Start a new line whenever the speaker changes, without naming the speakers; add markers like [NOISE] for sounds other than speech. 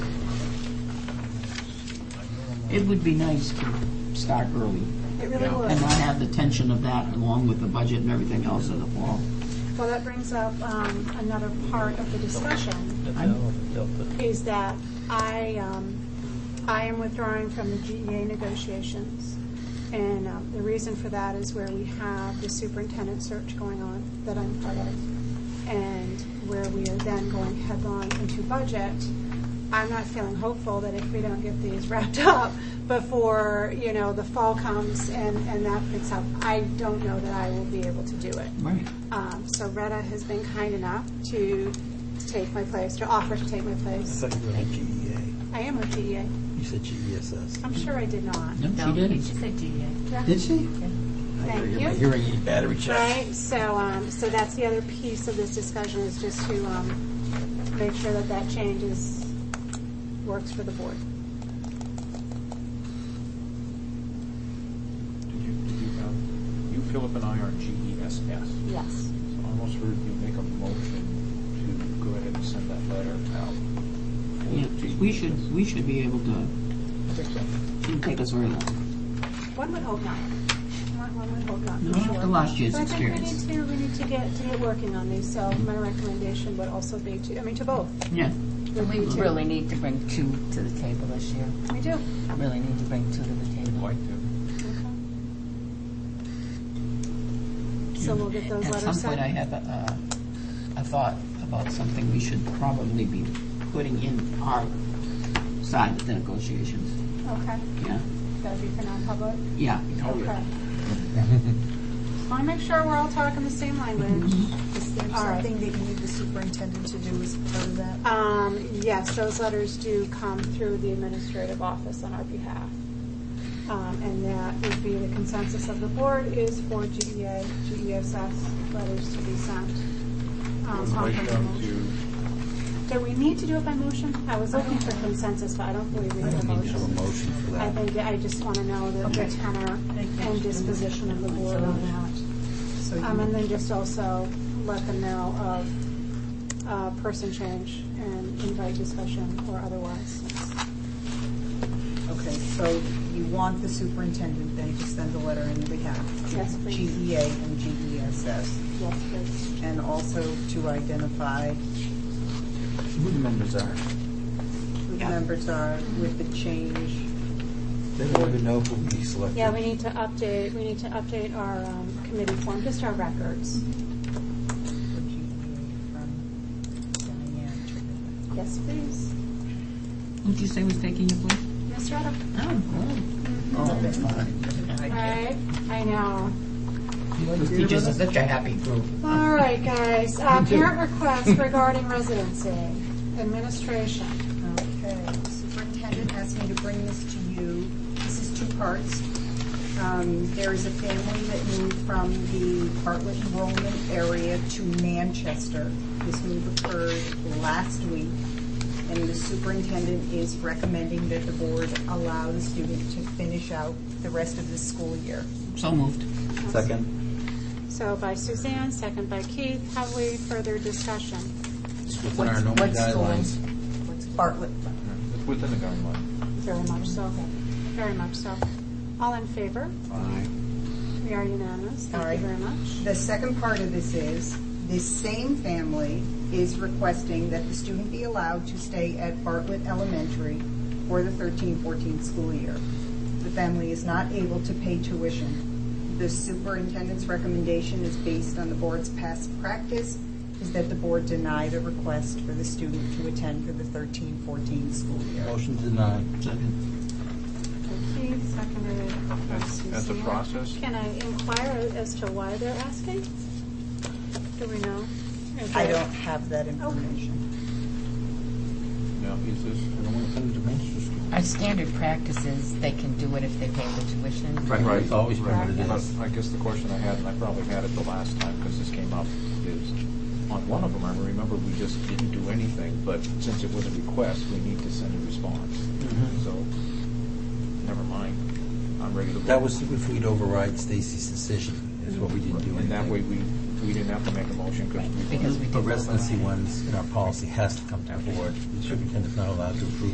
It would be nice to start early
It really
Yeah.
would.
and not have the tension of that along with the budget and everything else in the fall.
Well, that brings up um, another part of the discussion, is that I, um, I am withdrawing from the GEA negotiations. And um, the reason for that is where we have the superintendent search going on that I'm part of, and where we are then going headlong into budget. I'm not feeling hopeful that if we don't get these [LAUGHS] wrapped up before, you know, the fall comes and, and that picks up, I don't know that I will be able to do it.
Right.
Um, So Retta has been kind enough to take my place, to offer to take my place.
thought you were on GEA.
I am with DEA.
You said GESS.
I'm sure I did not.
No,
No,
she didn't.
She said DEA.
Did she?
Thank
My
you.
hearing aid battery check.
Right, so, um, so that's the other piece of this discussion is just to um, make sure that that change is, works for the board.
Did you, did you have, you, Philip and I E are GESS. So
Yes.
I almost heard you make a motion to go ahead and send that letter out. for
Yeah, we should,
GESS.
we should be able to, shouldn't take us very long.
One would hope not. One one would hope not,
No,
for sure.
after last year's
But I
experience.
think we need to, we need to get, to get working on these, so my recommendation would also be to, I mean, to both.
Yeah.
would
We
be to-
really need to bring two to the table this year.
We do.
I really need to bring two to the
I'd
table.
like to.
So we'll get those
At
letters
some
sent.
point, I have a, a a thought about something we should probably be putting in our side of the negotiations,
Okay,
yeah?
that'd be for non-public?
Oh, Yeah.
Okay.
[LAUGHS]
Want to make sure we're all talking the same language.
Mm-hmm.
Is there
All right.
something that you need the superintendent to do as part of that?
Um, yes, those letters do come through the administrative office on our behalf. Um, and that would be the consensus of the board is for E GEA, GESS letters to be sent. Um,
Would like them to,
Do we need to do it by motion? I was looking for consensus, but I don't believe we need a
Need to have a
motion.
motion for
I
that.
think, I just want to know the the
Okay.
tenor and disposition of the board on that.
uh, So
Um,
you-
And then just also let them know of uh, person change and invite discussion or otherwise.
Okay, so you want the superintendent then to send a letter in behalf of
Yes, please.
GEA and GESS,
Yes, please.
and also to identify
Who the members are.
who the
Yeah.
members are with the change.
They don't even know who we selected.
Yeah, we need to update, we need to update our um, committee form, just our records.
for GEA from Diane to-
Yes, please.
Who'd you say was taking your place?
Ms. Retta?
Oh,
Oh, that's fine.
Right, I know.
Those teachers are such a happy group.
All right, guys, Uh, parent requests regarding residency, administration.
Okay, superintendent asked me to bring this to you. This is two parts. Um, There is a family that moved from the Bartlett enrollment area to Manchester. This move occurred last week, and the superintendent is recommending that the board allow the student to finish out the rest of the school year.
So moved.
Second.
So by Suzanne, second by Keith, have we further discussion?
It's within our
What's-
normal
what's the
guidelines.
Bartlett,
it's within the guideline.
Very much so, very much so. All in favor?
Aye.
We are unanimous, thank you
All
very
right.
much.
The second part of this is, this same family is requesting that the student be allowed to stay at Bartlett Elementary for the 13-14 school year. The family is not able to pay tuition. The superintendent's recommendation is based on the board's past practice, is that the board deny the request for the student to attend for the 13-14 school year.
Motion denied. Second.
By Keith, seconded by
As-
Suzanne.
as a process?
Can I inquire as to why they're asking? Do we know? Is
I
there-
don't have that information.
Now, is this,
I don't want to send it to Manchester School.
Our standard practice is they can do it if they pay the tuition.
Right.
It's always been what it
but
is.
I guess the question I had, and I probably had it the last time because this came up, is on one of them, I remember we just didn't do anything, but since it was a request, we need to send a response.
Mm-hmm.
So, never mind, I'm ready to vote.
That was if we'd override Stacy's decision, is what we didn't do.
And that way,
anything.
we, we didn't have to make a motion because we
Because we
The
did.
residency ones in our policy has to come to the board. The superintendent's not allowed to approve